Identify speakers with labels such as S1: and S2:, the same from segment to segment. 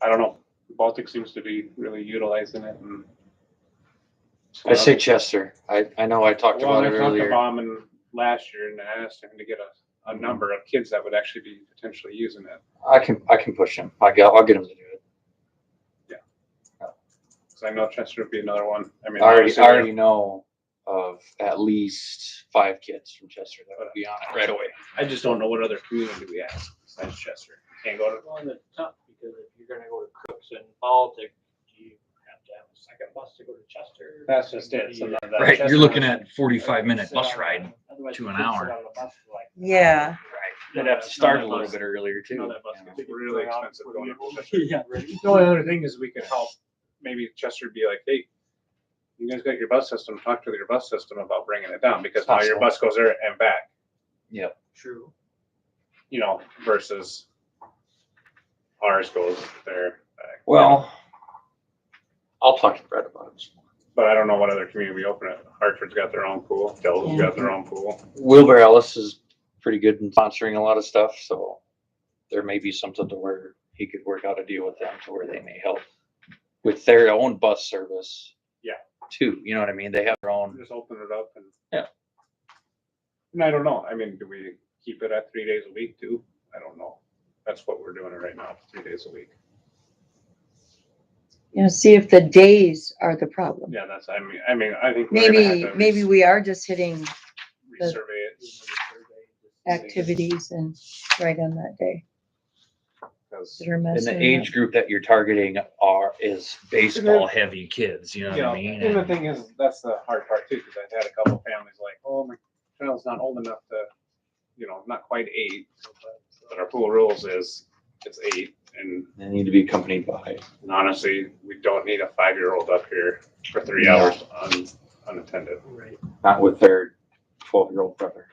S1: I don't know, Baltic seems to be really utilizing it and.
S2: I say Chester. I, I know I talked
S1: Well,
S2: about
S1: they
S2: it
S1: talked to
S2: earlier.
S1: Bauman last year and I asked him to get a, a number of kids that would actually be potentially using it.
S2: I can, I can push him. I got, I'll get him to do it.
S1: Cause I know Chester would be another one. I mean.
S2: I already,
S1: obviously,
S2: I already know of at least five kids from Chester that would be on it right away.
S1: I just don't know what other community we have besides Chester. Can't go to,
S3: Well, and it's tough because if you're gonna go to Cooks and Baltic, do you have to have a second bus to go to Chester?
S1: that's just
S3: Do
S1: it.
S3: you-
S1: So that- that
S4: Right,
S1: Chester-
S4: you're looking at forty-five minute
S3: Sit
S4: bus
S3: on a-
S4: ride.
S3: otherwise
S4: to
S3: you
S4: an
S3: could sit
S4: hour.
S3: on the bus for like-
S5: Yeah.
S2: They'd have to start a little bit earlier
S3: None
S2: too.
S3: of us could figure
S1: Really
S3: it out
S1: expensive
S3: before
S1: going
S3: we-
S1: up
S3: Yeah, really.
S1: The only other thing is we could help, maybe Chester would be like, hey, you guys got your bus system, talk to your bus system about bringing it down because now your
S2: Possible.
S1: bus goes there and back,
S3: True.
S1: you know, versus ours goes there. back.
S2: Well, I'll talk to Brett about it.
S1: But I don't know what other community we open it. Hartford's got their own pool, Delta's
S5: Yeah.
S1: got their own pool.
S2: Wilbur Ellis is pretty good in sponsoring a lot of stuff, so there may be something to where he could work out a deal with them to where they may help with their own bus service.
S1: Yeah.
S2: Too, you know what I mean? They have their own.
S1: Just open it up and.
S2: Yeah.
S1: And I don't know. I mean, do we keep it at three days a week too? I don't know. That's what we're doing it right now, three days a week.
S5: You know, see if the days are the problem.
S1: Yeah, that's, I mean, I mean, I think. we're gonna have
S5: Maybe,
S1: to
S5: maybe we are just hitting the-
S1: Resurvey it.
S5: activities and right on that day
S1: Cause
S5: that are
S2: And
S5: messing
S2: the
S5: it up.
S2: age group that you're targeting are, is
S4: Baseball heavy kids, you know what
S1: You know,
S4: I mean?
S1: and the thing is, that's the hard part too, because I've had a couple families like, oh, my child's not old enough to, you know, not quite eight. But our pool rules is it's eight, and
S2: They need to be accompanied by.
S1: and honestly, we don't need a five-year-old up here for three
S2: No.
S1: hours un, unattended.
S3: Right.
S2: not with their twelve-year-old brother.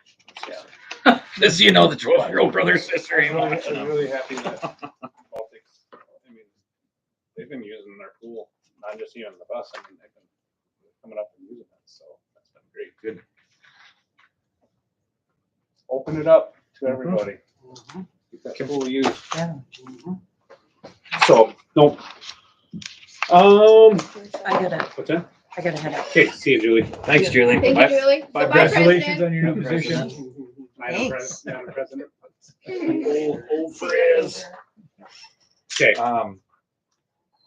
S4: This, you know, the twelve-year-old brother or sister ain't
S1: I'm really-
S4: watching
S1: I'm
S4: them.
S1: really happy that Baltics, I mean, they've been using their pool, not just even the bus, I mean, they've been coming up and using it, so that's been great. Good. Open it up to
S4: Mm-hmm.
S1: everybody.
S3: Mhm,
S1: Get that pool used.
S3: mhm.
S1: So, no. Um,
S5: I gotta,
S1: what's that?
S5: I gotta head out.
S1: Okay, see you, Julie.
S4: Thanks, Julie.
S6: Thank you, Julie. So bye,
S1: Congratulations
S6: President.
S1: on your new position. Madam
S5: Thanks.
S1: Pres- Madam President.
S4: Old, old friends.
S1: Okay,
S2: Um,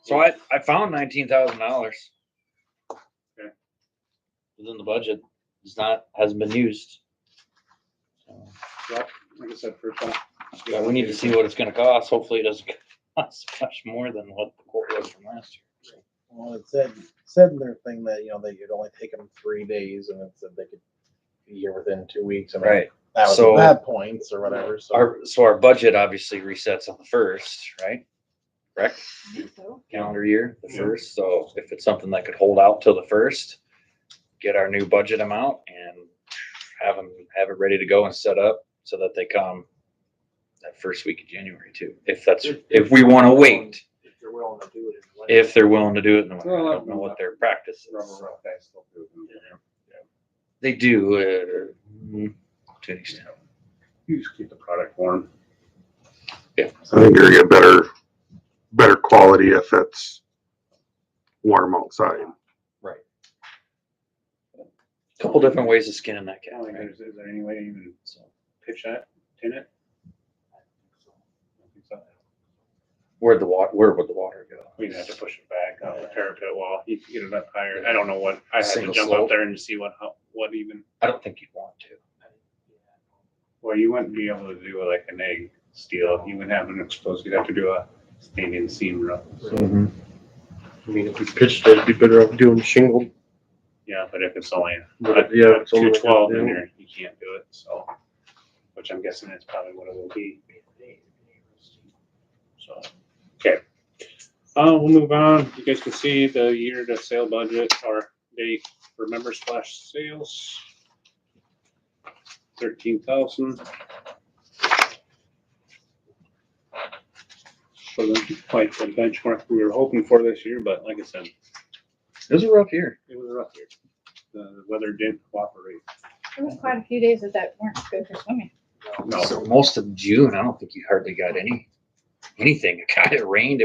S2: so I, I found nineteen thousand dollars.
S1: Okay.
S2: Within the budget, it's not, hasn't been used. So,
S1: well, like I said, first off.
S2: yeah, we need to see what it's gonna cost, hopefully it doesn't cost much more than what the quote was from last year.
S7: Well, it said, said in their thing that, you know, they could only take them three days and it said they could be here within two weeks. I mean, That was
S2: So-
S7: bad points or whatever, so.
S2: Our, so our budget obviously resets on the first, right? Correct? Calendar year, the
S1: Yeah.
S2: first, so if it's something that could hold out till the first, get our new budget amount and have them, have it ready to go and set up so that they come that first week of January too, if that's, if we want to wait,
S3: If you're willing to do it. in the
S2: if they're willing to do it. in the winter.
S1: Well,
S2: I don't know what their practice
S1: Rubber
S2: is.
S1: rough, I still do.
S2: They do, uh, mm, to an extent.
S1: You just keep the product warm.
S8: I think you're gonna get better, better quality if it's warm outside.
S2: Couple different ways of skinning that
S1: Oh, Yeah,
S2: cat,
S1: like,
S2: right?
S1: is, is there any way to even
S2: So.
S1: pitch that, tin it?
S2: Where'd the water, where would the water go?
S1: We'd have to push it back on the parapet wall, you could get it up higher, I don't know what, I have to
S2: Single
S1: jump up
S2: slope.
S1: there and see what, how- what even,
S2: I don't think you'd want to.
S1: well, you wouldn't be able to do like an egg steel, you wouldn't have an exposed, you'd have to do a standing seam roof.
S9: I mean, if we pitched it, it'd be better off doing shingled.
S1: Yeah, but if it's only,
S9: But if- yeah, it's
S1: two
S9: only-
S1: twelve in there, you can't do it, so, which I'm guessing is probably what it will be. So, okay. Uh, we'll move on. You guys can see the year to sale budget or date for member slash sales. Thirteen thousand. So that's quite the benchmark we were hoping for this year, but like I said,
S2: It was a rough year.
S1: it was rough here. The weather didn't cooperate.
S6: There was quite a few days that that weren't good for swimming.
S1: No.
S2: So most of June, I don't think you hardly got any, anything. It kind of rained